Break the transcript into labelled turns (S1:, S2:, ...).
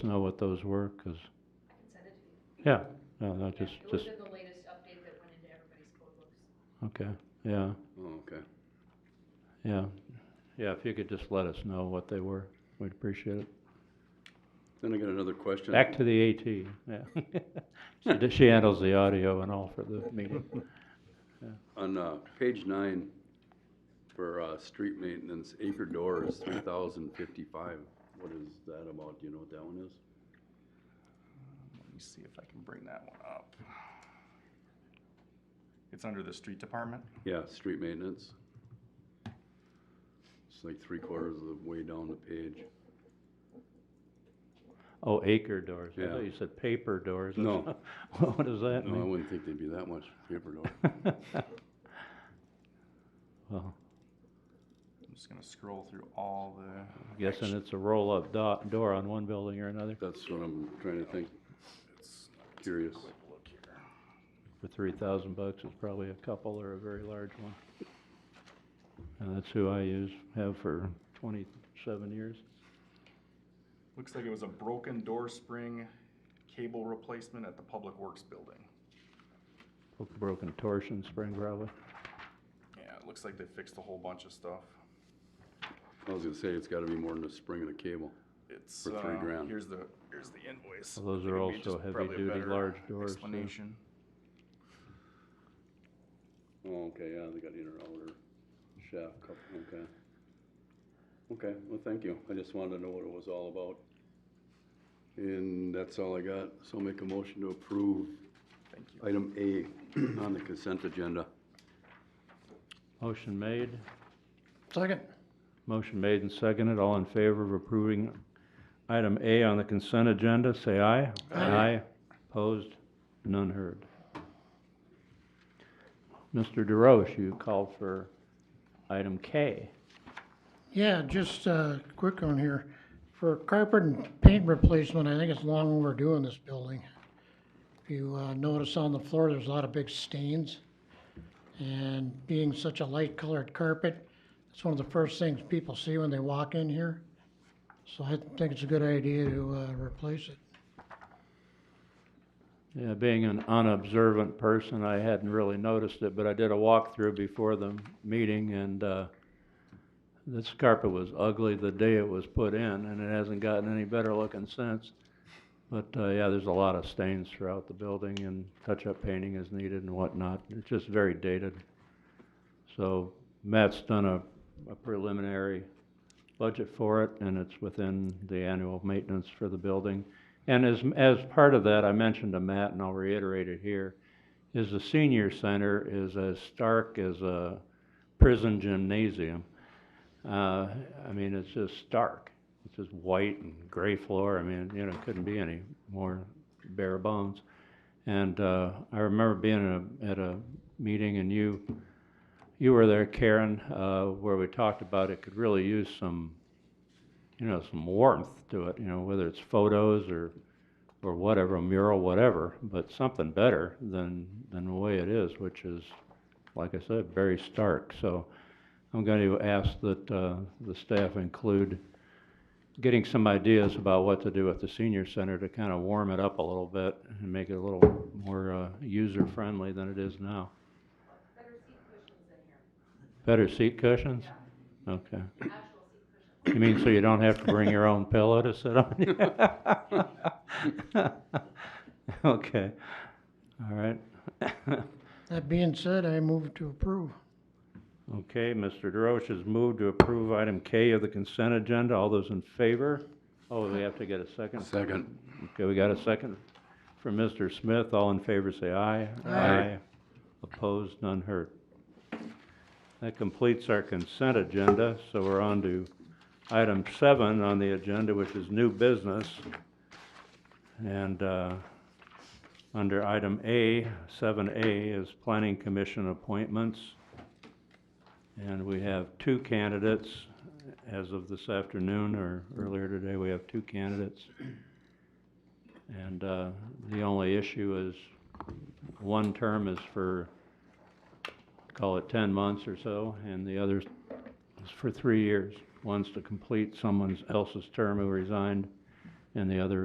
S1: know what those were, 'cause,
S2: I can send it to you.
S1: yeah, no, no, just,
S2: It was
S1: just,
S2: in the latest update that went into everybody's code books.
S1: okay, yeah,
S3: Oh, okay.
S1: yeah. Yeah, if you could just let us know what they were, we'd appreciate it.
S3: Then I got another question.
S1: Back to the AT, yeah. She d- She handles the audio and all for the meeting.
S3: On, uh, page nine, for, uh, street maintenance, acre doors, three thousand fifty-five. What is that about? Do you know what that one is?
S4: Let me see if I can bring that one up. It's under the street department.
S3: Yeah, street maintenance. It's like three quarters of the way down the page.
S1: Oh, acre doors, I
S3: Yeah.
S1: thought you said paper doors. or
S3: No.
S1: something. What does that
S3: No, I
S1: mean?
S3: wouldn't think they'd be that much paper door.
S1: Well,
S4: I'm just gonna scroll through all the,
S1: I'm guessing it's a roll-up do- door on one building or another
S3: That's what I'm trying to think,
S4: it's,
S3: curious.
S4: quick look here.
S1: for three thousand bucks, it's probably a couple or a very large one. And that's who I use, have for twenty-seven years.
S4: Looks like it was a broken door spring cable replacement at the Public Works Building.
S1: Broken torsion spring probably.
S4: Yeah, it looks like they fixed a whole bunch of stuff.
S3: I was gonna say, it's gotta be more than a spring and a cable.
S4: It's,
S3: For three
S4: uh,
S3: grand.
S4: here's the, here's the invoice.
S1: Well, those
S4: I think
S1: are
S4: it'd be
S1: also
S4: just probably a
S1: heavy-duty
S4: better
S1: large doors, too.
S4: Explanation.
S3: Oh, okay, yeah, they got inner outer shaft couple, okay. Okay, well, thank you. I just wanted to know what it was all about. And that's all I got. So I'll make a motion to approve
S4: Thank you.
S3: item A on the consent agenda.
S1: Motion made,
S3: Second.
S1: motion made and seconded, all in favor of approving item A on the consent agenda, say aye. Aye. Opposed, none heard. Mr. DeRoche, you called for item K.
S5: Yeah, just uh quick on here. For carpet and paint replacement, I think it's long overdue in this building. If you uh, notice on the floor, there's a lot of big stains. And being such a light colored carpet, it's one of the first things people see when they walk in here. So I think it's a good idea to uh replace it.
S1: Yeah, being an unobservant person, I hadn't really noticed it, but I did a walkthrough before the meeting and, uh, this carpet was ugly the day it was put in and it hasn't gotten any better looking since. But, uh, yeah, there's a lot of stains throughout the building and touch-up painting is needed and whatnot. It's just very dated. So Matt's done a, a preliminary budget for it and it's within the annual maintenance for the building. And as, as part of that, I mentioned to Matt, and I'll reiterate it here, is the senior center is as stark as a prison gymnasium. Uh, I mean, it's just stark. It's just white and gray floor. I mean, you know, it couldn't be any more bare bones. And, uh, I remember being at a, at a meeting and you, you were there, Karen, uh, where we talked about it could really use some, you know, some warmth to it, you know, whether it's photos or, or whatever, a mural, whatever, but something better than, than the way it is, which is, like I said, very stark. So I'm going to ask that, uh, the staff include getting some ideas about what to do at the senior center to kind of warm it up a little bit and make it a little more, uh, user-friendly than it is now.
S2: Better seat cushions in here,
S1: Better seat cushions? Okay.
S2: actual seat
S1: You
S2: cushions.
S1: mean so you don't have to bring your own pillow to sit on? Okay, all right.
S5: That being said, I move to approve.
S1: Okay, Mr. DeRoche has moved to approve item K of the consent agenda. All those in favor? Oh, we have to get a second.
S3: Second.
S1: Okay, we got a second from Mr. Smith. All in favor, say aye.
S3: Aye.
S1: Opposed, none heard. That completes our consent agenda, so we're on to item seven on the agenda, which is new business. And, uh, under item A, seven A is planning commission appointments. And we have two candidates. As of this afternoon or earlier today, we have two candidates. And uh, the only issue is, one term is for, call it 10 months or so, and the other is for three years. One's to complete someone else's term who resigned, and the other